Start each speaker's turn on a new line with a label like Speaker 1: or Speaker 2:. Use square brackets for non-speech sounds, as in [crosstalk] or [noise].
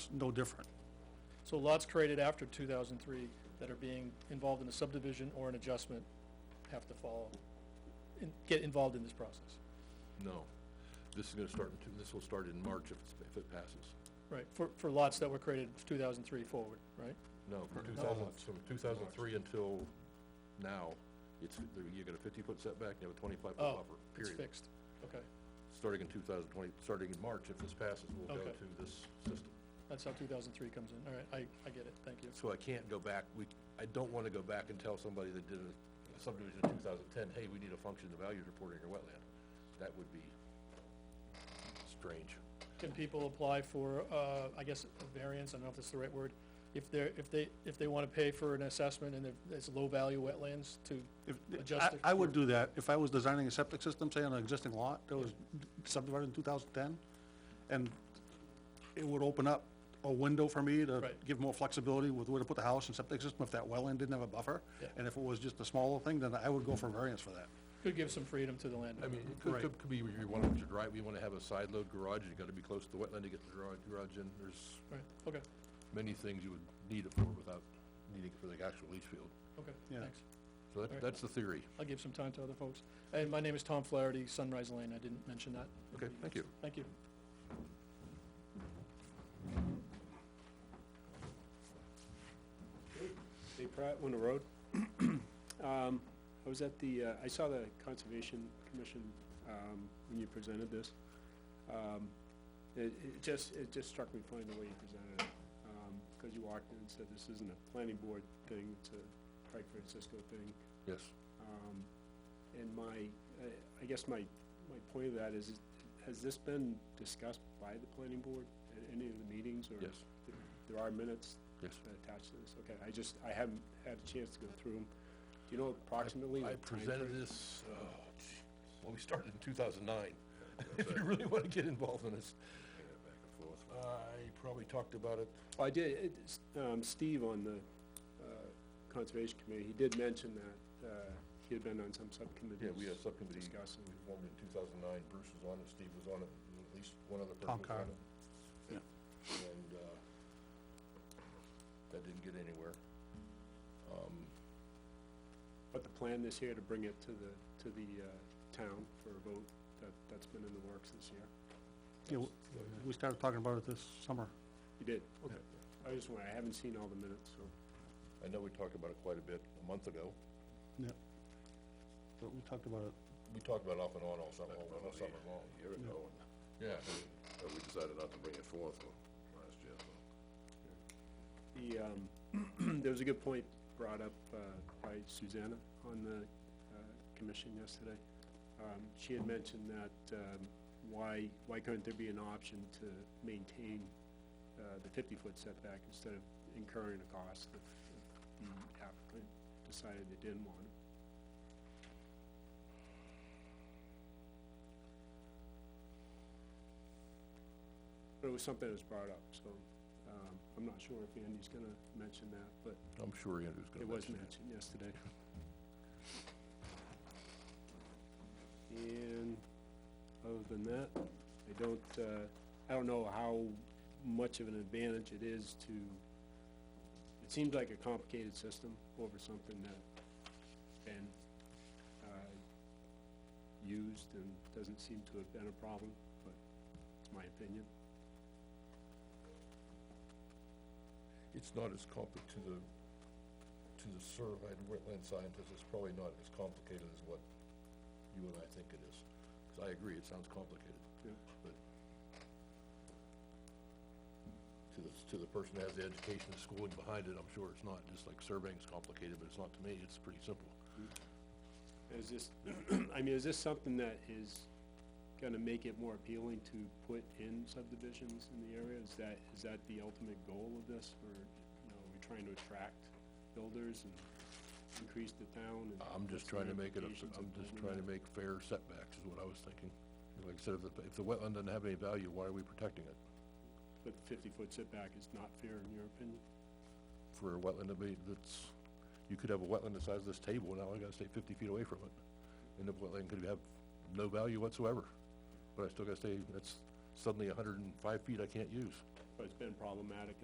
Speaker 1: no different.
Speaker 2: So lots created after two thousand three that are being involved in a subdivision or an adjustment have to follow, in- get involved in this process,
Speaker 3: No. This is gonna start, in two- this will start in March if it's, if it passes.
Speaker 2: right? For, for lots that were created two thousand three forward, right?
Speaker 3: No, from
Speaker 1: No.
Speaker 3: two thousand, from two thousand three until now, it's, you got a fifty-foot setback, you have a twenty-five foot
Speaker 2: Oh,
Speaker 3: buffer,
Speaker 2: It's
Speaker 3: period.
Speaker 2: fixed, okay.
Speaker 3: Starting in two thousand twenty, starting in March, if this passes, we'll go
Speaker 2: Okay.
Speaker 3: to this system.
Speaker 2: That's how two thousand three comes in, all right, I, I get it, thank you.
Speaker 3: So I can't go back, we, I don't wanna go back and tell somebody that did a subdivision in two thousand ten, hey, we need a function of values report in your wetland. That would be strange.
Speaker 2: Can people apply for, uh, I guess, a variance, I don't know if that's the right word, if they're, if they, if they wanna pay for an assessment and they're- it's low-value wetlands to,
Speaker 1: If,
Speaker 2: Adjust
Speaker 1: I,
Speaker 2: it
Speaker 1: I would
Speaker 2: for-
Speaker 1: do that, if I was designing a septic system, say on an existing lot that was subdivided in two thousand ten, and it would open up a window for me to
Speaker 2: Right.
Speaker 1: give more flexibility with where to put the house and septic system if that well end didn't have a buffer.
Speaker 2: Yeah.
Speaker 1: And if it was just a smaller thing, then I would go for variance for that.
Speaker 2: could give some freedom to the landowner.
Speaker 3: I mean, it could,
Speaker 1: Right.
Speaker 3: could, could be, you want to drive, you want to have a side load garage, you gotta be close to the wetland to get the garage, garage in, there's
Speaker 2: Right, okay,
Speaker 3: many things you would need it for without needing it for the actual leach field.
Speaker 2: okay,
Speaker 1: Yeah.
Speaker 2: thanks.
Speaker 3: So
Speaker 2: Alright.
Speaker 3: that, that's the theory.
Speaker 2: I'll give some time to other folks. And my name is Tom Flaherty, Sunrise Lane, I didn't mention that.
Speaker 3: Okay, thank you.
Speaker 2: Thank you.
Speaker 4: Dave Pratt, Winter Road. [clears throat] Um, I was at the, uh, I saw the Conservation Commission, um, when you presented this. Um, it, it just, it just struck me funny the way you presented it, um, cause you walked in and said, this isn't a planning board thing, it's a Craig Francisco thing.
Speaker 3: Yes.
Speaker 4: Um, and my, I, I guess my, my point of that is, has this been discussed by the planning board at any of the meetings or?
Speaker 3: Yes,
Speaker 4: There are minutes
Speaker 3: yes.
Speaker 4: attached to this, okay, I just, I haven't had a chance to go through them. Do you know approximately
Speaker 3: I
Speaker 4: the
Speaker 3: presented
Speaker 4: timeframe?
Speaker 3: this, oh, gee, well, we started in two thousand [laughs] nine. If you really want to get involved in this. I probably talked about it.
Speaker 4: Well, I did, it- s- um, Steve on the, uh, Conservation Committee, he did mention that, uh, he had been on some subcommittees.
Speaker 3: Yeah, we had a subcommittee.
Speaker 4: Discussing.
Speaker 3: We formed in two thousand nine, Bruce was on it, Steve was on it, and at least one other
Speaker 1: Tom
Speaker 3: person was on
Speaker 1: Carr.
Speaker 3: it. And, uh, that didn't get anywhere. Um,
Speaker 4: But the plan this year to bring it to the, to the, uh, town for a vote, that, that's been in the works this year.
Speaker 1: You know, we started talking about it this summer.
Speaker 4: You did, okay. I just want, I haven't seen all the minutes, so.
Speaker 3: I know we talked about it quite a bit a month ago.
Speaker 1: Yeah. But we talked about it.
Speaker 3: We talked about it off and on all summer, all summer long.
Speaker 5: year ago, and
Speaker 3: Yeah.
Speaker 5: uh, we decided not to bring it forth uh, last year, so.
Speaker 4: The, um, [clears throat] there was a good point brought up, uh, by Susanna on the, uh, commission yesterday. Um, she had mentioned that, um, why, why couldn't there be an option to maintain, uh, the fifty-foot setback instead of incurring a cost if if the applicant decided they didn't want it? But it was something that was brought up, so, um, I'm not sure if Andy's gonna mention that, but
Speaker 3: I'm sure Andrew's gonna
Speaker 4: it was
Speaker 3: mention
Speaker 4: mentioned yesterday. And other than that, I don't, uh, I don't know how much of an advantage it is to, it seems like a complicated system over something that been, uh, used and doesn't seem to have been a problem, but it's my opinion.
Speaker 3: it. It's not as compli, to the, to the certified wetland scientist, it's probably not as complicated as what you and I think it is. 'Cause I agree, it sounds complicated,
Speaker 4: Yeah.
Speaker 3: but to the, to the person that has the education and schooling behind it, I'm sure it's not, just like surveying's complicated, but it's not to me, it's pretty simple.
Speaker 4: Is this, [clears throat] I mean, is this something that is gonna make it more appealing to put in subdivisions in the area? Is that, is that the ultimate goal of this, or, you know, are we trying to attract builders and increase the town and?
Speaker 3: I'm just trying to make it, a-
Speaker 4: Implications of
Speaker 3: I'm just
Speaker 4: building
Speaker 3: trying to
Speaker 4: that.
Speaker 3: make fair setbacks is what I was thinking. Like I said, if the, if the wetland doesn't have any value, why are we protecting it?
Speaker 4: But fifty-foot setback is not fair in your opinion?
Speaker 3: For a wetland to be, that's, you could have a wetland the size of this table, now I gotta stay fifty feet away from it. And the wetland could have no value whatsoever, but I still gotta stay, that's suddenly hundred and five feet I can't use.
Speaker 4: but it's been problematic